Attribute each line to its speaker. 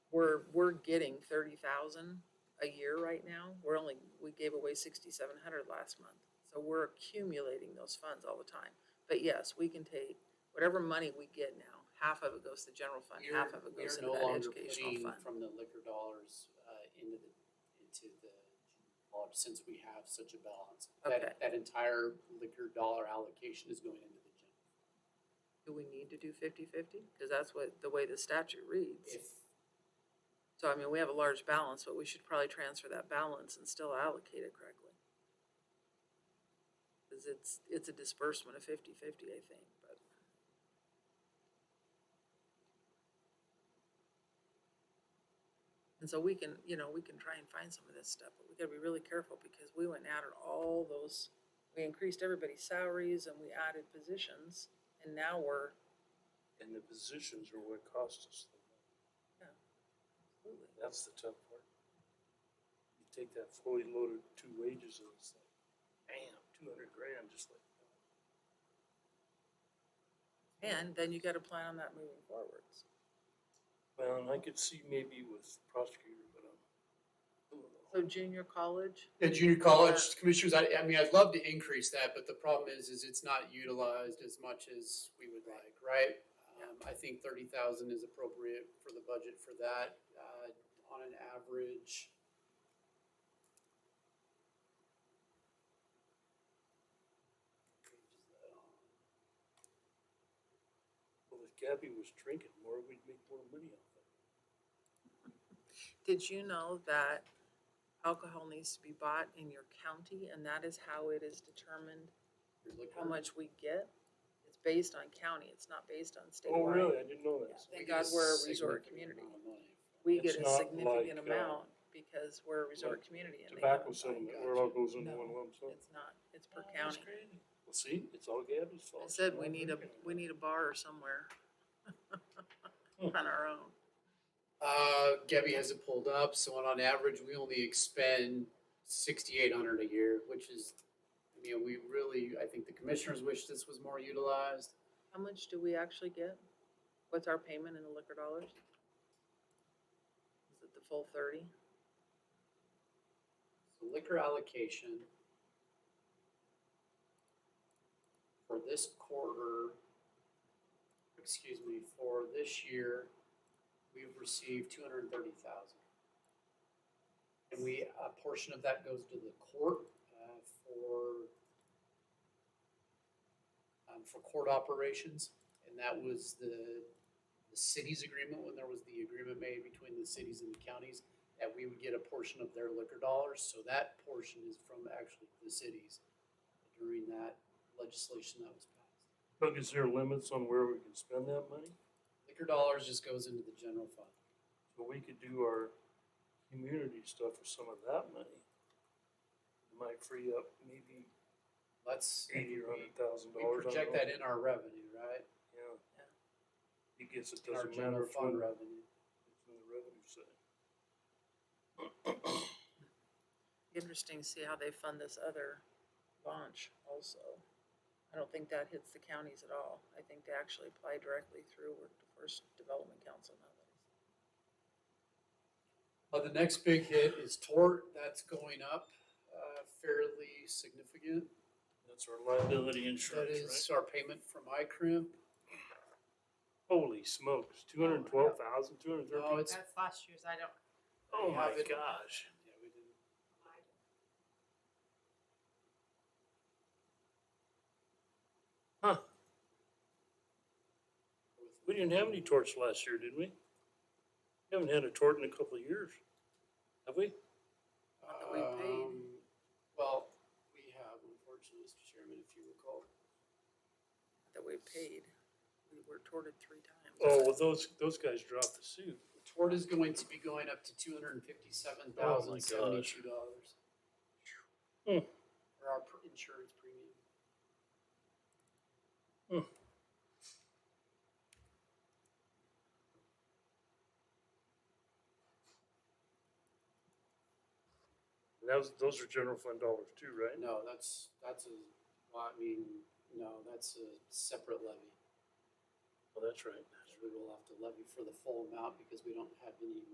Speaker 1: we're getting thirty thousand a year right now. We're only, we gave away sixty-seven hundred last month. So we're accumulating those funds all the time. But yes, we can take whatever money we get now, half of it goes to general fund,
Speaker 2: We're-
Speaker 1: half of it
Speaker 2: we're
Speaker 1: goes into
Speaker 2: no
Speaker 1: that
Speaker 2: longer
Speaker 1: educational
Speaker 2: putting
Speaker 1: fund.
Speaker 2: From the liquor dollars, uh, into the, into the, general since we have such a balance.
Speaker 1: Okay.
Speaker 2: That, that entire liquor dollar allocation is going into the general.
Speaker 1: Do we need to do fifty-fifty? Cause that's what, the way the statute reads.
Speaker 2: If,
Speaker 1: So I mean, we have a large balance, but we should probably transfer that balance and still allocate it correctly. Cause it's, it's a disbursement of fifty-fifty, I think, but. And so we can, you know, we can try and find some of this stuff, but we gotta be really careful because we went out at all those, we increased everybody's salaries and we added positions. And now we're,
Speaker 3: And the positions are what cost us. the money.
Speaker 1: absolutely,
Speaker 3: That's the tough part. You take that fully loaded two wages and it's like, bam, two hundred grand, just like.
Speaker 1: and then you gotta plan on that moving forwards.
Speaker 3: Well, and I could see maybe with prosecutor, but um, I'm.
Speaker 1: So junior college,
Speaker 2: at junior college commissioners, I, I mean, I'd love to increase that, but the problem is, is it's not utilized as much as we would like, right? Um, I think thirty thousand is appropriate for the budget for that, uh, on an average.
Speaker 3: Well, if Gabby was drinking more, we'd make more money off it.
Speaker 1: Did you know that alcohol needs to be bought in your county and that is how it is determined
Speaker 2: You're looking-
Speaker 1: how much we get? It's based on county, it's not based on statewide.
Speaker 3: Oh, really? I didn't know that.
Speaker 1: Yeah. Thank
Speaker 2: We get
Speaker 1: God we're a
Speaker 2: significant
Speaker 1: resort community.
Speaker 2: amount of money.
Speaker 1: We get
Speaker 3: It's
Speaker 1: a
Speaker 3: not
Speaker 1: significant
Speaker 3: like, uh,
Speaker 1: amount because we're a resort
Speaker 3: like
Speaker 1: community and they haven't.
Speaker 3: Tobacco
Speaker 1: bought-
Speaker 3: settlement,
Speaker 2: gotcha.
Speaker 3: where it all goes into
Speaker 1: No.
Speaker 3: one lump sum.
Speaker 1: It's not, it's per
Speaker 3: Oh, that's
Speaker 1: county.
Speaker 3: crazy. Well, see, it's all Gabby's fault.
Speaker 1: I said,
Speaker 3: She's
Speaker 1: we
Speaker 3: not
Speaker 1: need a,
Speaker 3: drinking.
Speaker 1: we need a bar somewhere. On our own.
Speaker 2: Uh, Gabby has it pulled up, so on, on average, we only expend sixty-eight hundred a year, which is, I mean, we really, I think the commissioners wish this was more utilized.
Speaker 1: How much do we actually get? What's our payment in the liquor dollars? Is it the full thirty?
Speaker 2: The liquor allocation for this quarter, excuse me, for this year, we've received two hundred and thirty thousand. And we, a portion of that goes to the court, uh, for um, for court operations, and that was the, the city's agreement, when there was the agreement made between the cities and the counties that we would get a portion of their liquor dollars, so that portion is from actually the cities during that legislation that was passed.
Speaker 3: Doug, is there limits on where we can spend that money?
Speaker 2: Liquor dollars just goes into the general fund.
Speaker 3: So we could do our community stuff with some of that money. It Might free up maybe
Speaker 2: Let's,
Speaker 3: eighty or hundred thousand
Speaker 2: we
Speaker 3: dollars. I
Speaker 2: project
Speaker 3: don't
Speaker 2: that
Speaker 3: know.
Speaker 2: in our revenue, right?
Speaker 3: Yeah. It gets, it
Speaker 2: In our
Speaker 3: doesn't matter
Speaker 2: general
Speaker 3: if we're
Speaker 2: fund
Speaker 3: in
Speaker 2: revenue.
Speaker 3: the revenue side.
Speaker 1: Interesting to see how they fund this other launch also. I don't think that hits the counties at all. I think they actually apply directly through Workforce Development Council nowadays.
Speaker 2: Uh, the next big hit is tort, that's going up, uh, fairly significant.
Speaker 3: That's our liability
Speaker 2: That
Speaker 3: insurance, right?
Speaker 2: is our payment from iCrimp.
Speaker 3: Holy smokes, two hundred and twelve thousand, two hundred and
Speaker 2: No,
Speaker 3: thirteen?
Speaker 2: it's,
Speaker 4: That's last year's, I don't,
Speaker 3: Oh
Speaker 2: I
Speaker 3: my
Speaker 2: have it.
Speaker 3: gosh.
Speaker 2: yeah, we didn't.
Speaker 3: Huh, we didn't have any torts last year, did we? We Haven't had a tort in a couple of years, have we?
Speaker 1: Not that we paid.
Speaker 2: Um, Well, we have, unfortunately, Mr. Chairman, if you recall,
Speaker 1: That we paid, we were torted three times.
Speaker 3: Oh, well, those, those guys dropped the suit.
Speaker 2: the tort is going to be going up to two hundred and fifty-seven thousand seventy-two dollars.
Speaker 3: Hmm.
Speaker 2: For our pr- insurance premium.
Speaker 3: And That was, those are general fund dollars too, right?
Speaker 2: No, that's, that's a, well, I mean, no, that's a separate levy.
Speaker 3: Well, that's right.
Speaker 2: We will have to levy for the full amount because we don't have any